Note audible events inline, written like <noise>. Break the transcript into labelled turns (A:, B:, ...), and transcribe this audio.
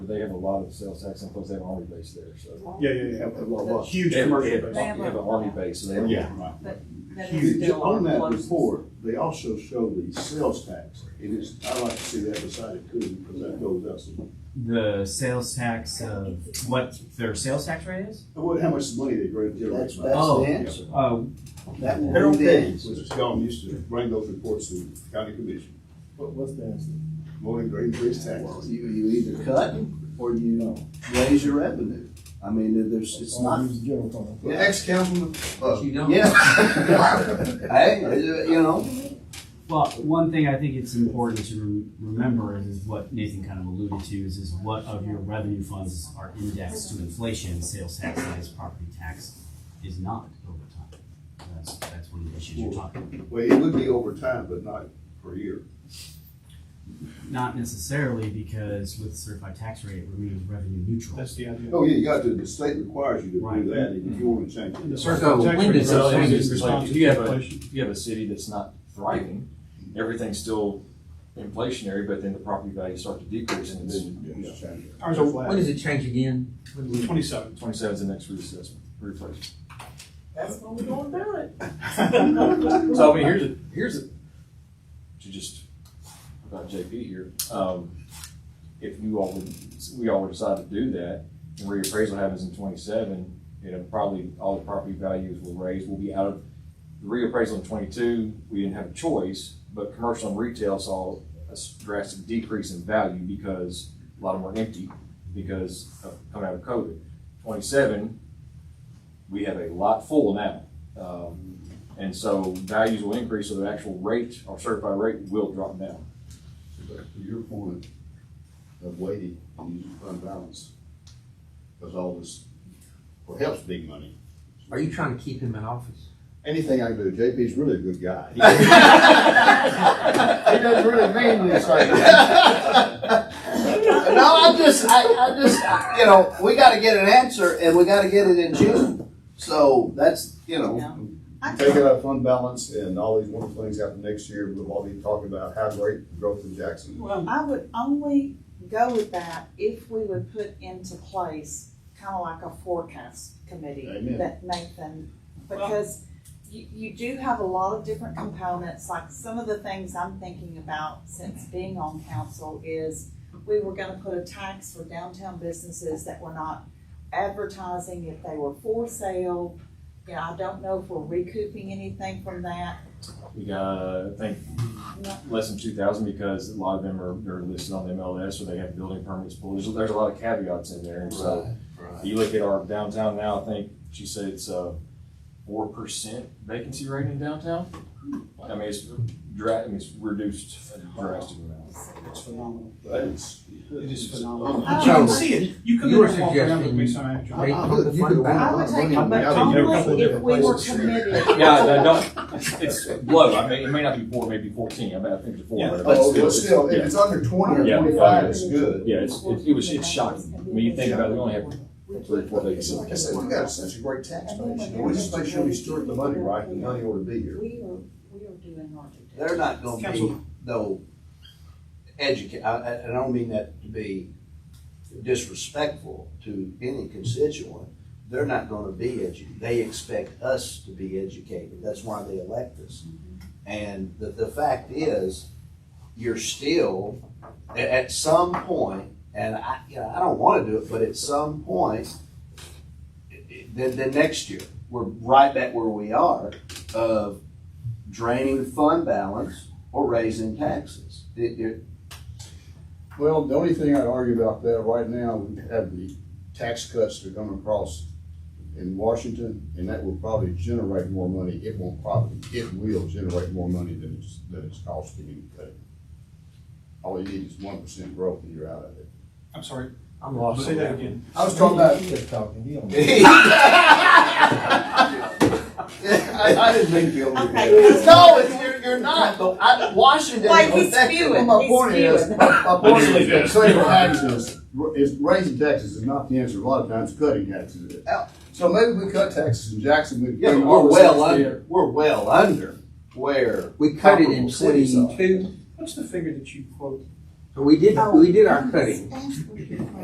A: they have a lot of sales tax, and plus they have an army base there, so.
B: Yeah, yeah, yeah.
A: A lot- a lot.
B: Huge
A: They have-
B: commercial
A: they have-
B: base.
A: They have an army base, so they have.
C: Yeah.
D: That is
C: Huge.
D: still
C: On
D: our
C: that
D: closest.
C: report, they also show the sales tax, and it's, I like to see that beside it too, because that goes up. some-
E: The sales tax of what their sales tax rate is?
C: And what, how much money they bring to
F: That's, that's
C: everybody.
E: Oh.
F: the answer.
E: Uh,
F: That will
C: Harold
F: be the
C: Page,
F: answer.
C: which is gone, used to bring those reports to the county commission,
B: What- What's the answer?
C: morning grade increase taxes.
F: You, you either cut or you raise your revenue. I mean, there- there's, it's not.
B: Use the general fund.
F: Yeah.
C: Ex-councilman, uh,
D: You don't.
F: Yeah. <laughs> Hey, uh, you know,
E: well, one thing I think it's important to rem- remember is, is what Nathan kind of alluded to is, is what of your revenue funds are indexed to inflation, sales tax is, property tax is not over time. That's, that's one of the issues you're talking about.
C: well, it would be over time, but not per year.
E: Not necessarily because with certified tax rate, it remains revenue neutral.
B: That's the idea.
C: Oh, yeah, you got to, the state requires you to
E: Right.
C: do that, if you wanna change
B: And the
C: it.
B: certified
A: So
B: tax
A: when
B: rate
A: does that-
B: is
A: when does-
B: responsive
A: like, you have
B: to
A: a-
B: inflation.
A: If you have a city that's not thriving, everything's still inflationary, but then the property values start to decrease, and it's
C: Yeah, change it.
B: Ours are
D: When
B: flat.
D: does it change again? When do we-
B: Twenty-seven.
A: twenty-seven's the next reassessment, replacement.
D: That's when we're going down it.
A: <laughs> So I mean, here's a, here's a, to just, about JP here, um, if you all would, we all would decide to do that, and reappraisal happens in twenty-seven, you know, probably all the property values will raise, will be out of, the reappraisal in twenty-two, we didn't have a choice, but commercial and retail saw a s- drastic decrease in value because a lot of them were empty because of coming out of COVID. Twenty-seven, we have a lot full now. Um, and so values will increase, so the actual rate, our certified rate will drop down.
C: But To your point of waiting and using fund balance, because all this, well, helps big money.
D: Are you trying to keep him in office?
C: Anything I can do, JP's really a good guy. He doesn't really mean this right now.
F: no, I'm just, I, I just, I- you know, we gotta get an answer and we gotta get it in June. So that's, you know,
C: Take out fund balance and all these wonderful things happen next year, we'll all be talking about how great the growth in Jackson.
B: Well,
G: I would only go with that if we would put into place kind of like a forecast committee
C: Amen.
G: that Nathan, because you, you do have a lot of different components, like some of the things I'm thinking about since being on council is we were gonna put a tax for downtown businesses that were not advertising if they were for sale. You know, I don't know if we're recouping anything from that.
A: We got, uh, I think, less than two thousand because a lot of them are, are listed on the MLS or they have building permits pulled. There's, there's a lot of caveats in there. And so you look at our downtown now, I think she said it's a four percent vacancy rate in downtown. I mean, it's dra, I mean, it's reduced drastically now.
B: it's phenomenal.
C: That is.
B: It is phenomenal.
G: I
B: You
G: don't
B: can
G: know.
B: see it. You come in
D: You were
B: and walk around
D: suggesting-
B: with me some
D: Are
B: actually.
D: you from the fund
G: I
D: balance?
G: would take it, but
C: Yeah, I would do a couple
G: only if
C: different
G: we were
C: places.
G: committed.
A: Yeah, no, don't, it's- it's low. I mean, it may not be four, maybe fourteen. I mean, I think it's four.
B: Yeah.
A: but-
C: Oh, But still, still, if it's under twenty
A: Yeah.
C: or twenty-five, it's good.
A: Yeah, it's, it it was, it's shocking. I mean, you think about it, we only have three, four days.
C: Like I said, we got such a great tax base, and we just make sure we steward the money right, the money ought to be here.
G: We are, we are doing our due
F: they're not gonna be,
B: Council.
F: though, educate, I, I, I don't mean that to be disrespectful to any constituent. They're not gonna be edu, they expect us to be educated. That's why they elect us. And the, the fact is, you're still, at, at some point, and I, you know, I don't wanna do it, but at some point, it- it- then, then next year, we're right back where we are of draining fund balance or raising taxes. It- it- <laughs>
C: Well, the only thing I'd argue about that right now, we have the tax cuts that are coming across in Washington, and that will probably generate more money. It won't probably, it will generate more money than it's, than it's costing you to cut it. All you need is one percent growth and you're out of it.
B: I'm sorry.
D: I'm lost.
B: Say that again.
C: I was talking about, I, I didn't mean to be over here.
G: Okay.
F: No, it's- you're, you're not, but I, Washington
G: Like,
F: is
G: he's
F: effective.
G: spewing.
C: My point is, my point is, that saving taxes, is raising taxes is not the answer, a lot of times cutting taxes is. So maybe we cut taxes in Jackson, we.
F: Yeah, but we're well under, we're well under where.
D: We cut it in
F: comparable cities
B: uh,
F: are.
D: twenty-two,
B: What's the figure that you quote
D: but we did, we did our cutting.
G: diligence.